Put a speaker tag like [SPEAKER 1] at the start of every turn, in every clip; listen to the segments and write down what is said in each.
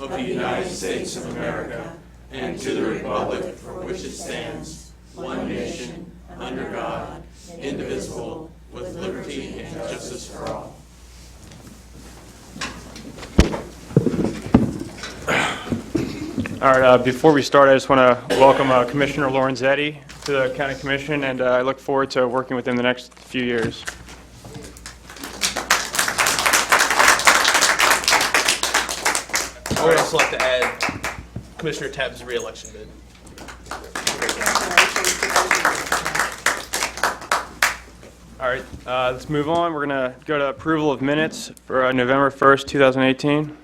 [SPEAKER 1] of the United States of America and to the republic for which it stands, one nation, under God, indivisible, with liberty and justice for all.
[SPEAKER 2] All right, uh, before we start, I just want to welcome uh, Commissioner Lorenzetti to the County Commission, and uh, I look forward to working with him the next few years.
[SPEAKER 3] I would also like to add Commissioner Tapp's reelection bid.
[SPEAKER 2] All right, uh, let's move on. We're going to go to approval of minutes for uh, November 1st, 2018.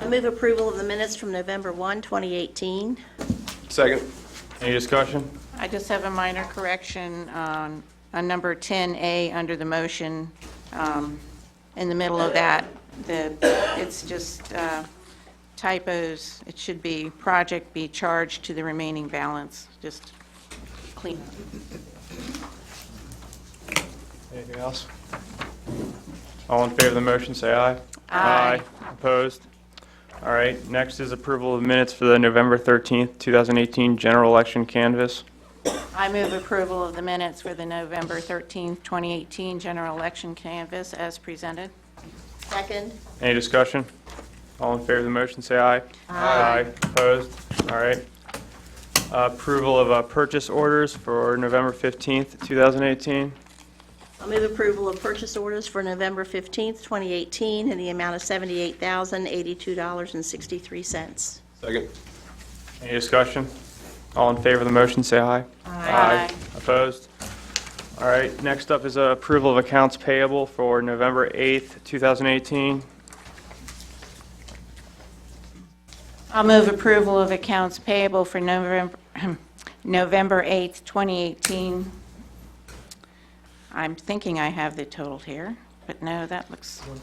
[SPEAKER 4] I move approval of the minutes from November 1, 2018.
[SPEAKER 3] Second.
[SPEAKER 2] Any discussion?
[SPEAKER 5] I just have a minor correction on, on number 10A under the motion. Um, In the middle of that, the, it's just uh, typos. It should be project be charged to the remaining balance, just clean.
[SPEAKER 2] Anything else? All in favor of the motion, say aye.
[SPEAKER 5] Aye.
[SPEAKER 2] Opposed? All right, next is approval of minutes for the November 13th, 2018 general election canvass.
[SPEAKER 5] I move approval of the minutes for the November 13th, 2018 general election canvass as presented.
[SPEAKER 4] Second.
[SPEAKER 2] Any discussion? All in favor of the motion, say aye. Aye. Opposed? All right. Uh, Approval of uh, purchase orders for November 15th, 2018.
[SPEAKER 4] I move approval of purchase orders for November 15, 2018, in the amount of $78,082.63.
[SPEAKER 3] Second.
[SPEAKER 2] Any discussion? All in favor of the motion, say aye.
[SPEAKER 5] Aye.
[SPEAKER 2] Opposed? All right, next up is uh, approval of accounts payable for November 8th, 2018.
[SPEAKER 5] I'll move approval of accounts payable for November, November 8th, 2018. I'm thinking I have the total here, but no, that looks,
[SPEAKER 3] I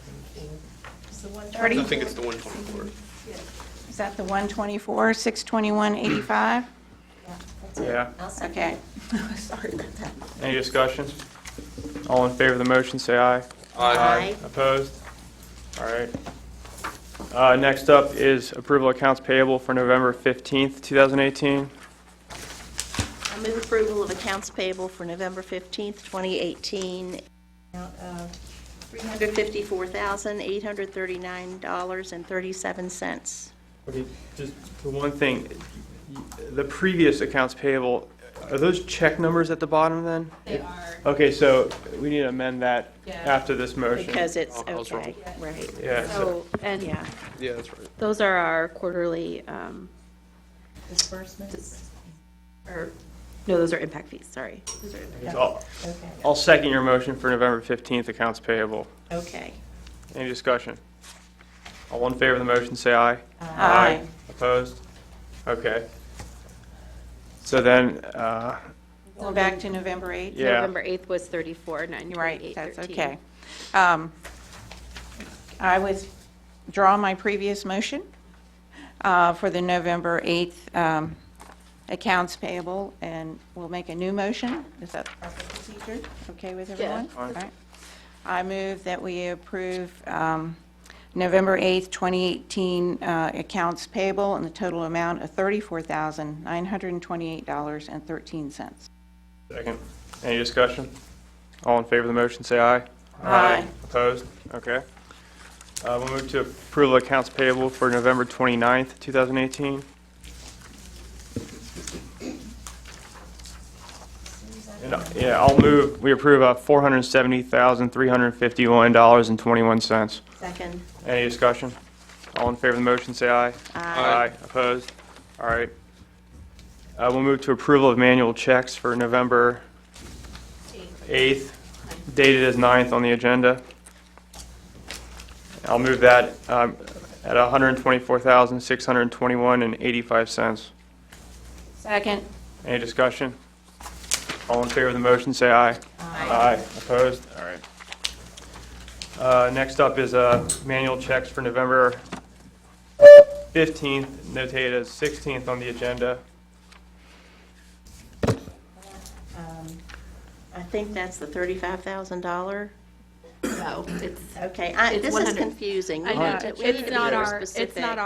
[SPEAKER 3] think it's the 124.
[SPEAKER 5] is that the 124, 621, 85?
[SPEAKER 2] Yeah.
[SPEAKER 5] Okay.
[SPEAKER 2] Any discussion? All in favor of the motion, say aye.
[SPEAKER 4] Aye.
[SPEAKER 2] Opposed? All right. Uh, Next up is approval of accounts payable for November 15th, 2018.
[SPEAKER 4] I move approval of accounts payable for November 15, 2018, amount of $354,839.37.
[SPEAKER 2] Okay, just for one thing, the previous accounts payable, are those check numbers at the bottom then? They are. Okay, so we need to amend that after this motion.
[SPEAKER 4] Because it's,
[SPEAKER 3] I was wrong.
[SPEAKER 4] okay, right,
[SPEAKER 2] Yeah, so-
[SPEAKER 6] So, and yeah,
[SPEAKER 3] Yeah, that's right.
[SPEAKER 6] those are our quarterly, um. Disbursements? Or, no, those are impact fees, sorry. Those are impact-
[SPEAKER 2] I'll I'll second your motion for November 15th accounts payable.
[SPEAKER 4] okay.
[SPEAKER 2] Any discussion? All in favor of the motion, say aye. Opposed? Okay. So then, uh,
[SPEAKER 5] Going back to November 8th?
[SPEAKER 2] Yeah.
[SPEAKER 6] November eighth was thirty-four, nine
[SPEAKER 5] You're right,
[SPEAKER 6] twenty-eight,
[SPEAKER 5] that's
[SPEAKER 6] thirteen.
[SPEAKER 5] okay. Um, I withdraw my previous motion uh, for the November 8th um, accounts payable, and we'll make a new motion. Is that the procedure? Okay with everyone? All right. I move that we approve um, November 8th, 2018 uh, accounts payable in the total amount of $34,928.13.
[SPEAKER 2] second, any discussion? All in favor of the motion, say aye.
[SPEAKER 5] Aye.
[SPEAKER 2] Opposed? Okay. Uh, We'll move to approval of accounts payable for November 29th, 2018. And, uh, Yeah, I'll move, we approve uh, $470,351.21.
[SPEAKER 4] Second.
[SPEAKER 2] Any discussion? All in favor of the motion, say aye. Aye. Opposed? All right. Uh, We'll move to approval of manual checks for November 8th, dated as 9th on the agenda. I'll move that um, at $124,621.85.
[SPEAKER 5] Second.
[SPEAKER 2] Any discussion? All in favor of the motion, say aye. Aye. Opposed? All right. Uh, Next up is uh, manual checks for November 15th, notated as 16th on the agenda.
[SPEAKER 4] I think that's the $35,000.
[SPEAKER 6] No, it's,
[SPEAKER 4] Okay, I,
[SPEAKER 6] It's
[SPEAKER 4] this is
[SPEAKER 6] 100.
[SPEAKER 4] confusing.
[SPEAKER 6] I
[SPEAKER 4] We
[SPEAKER 6] know,
[SPEAKER 4] need to- we need to
[SPEAKER 6] it's
[SPEAKER 4] be
[SPEAKER 6] not
[SPEAKER 4] more
[SPEAKER 6] our, it's
[SPEAKER 4] specific.
[SPEAKER 6] not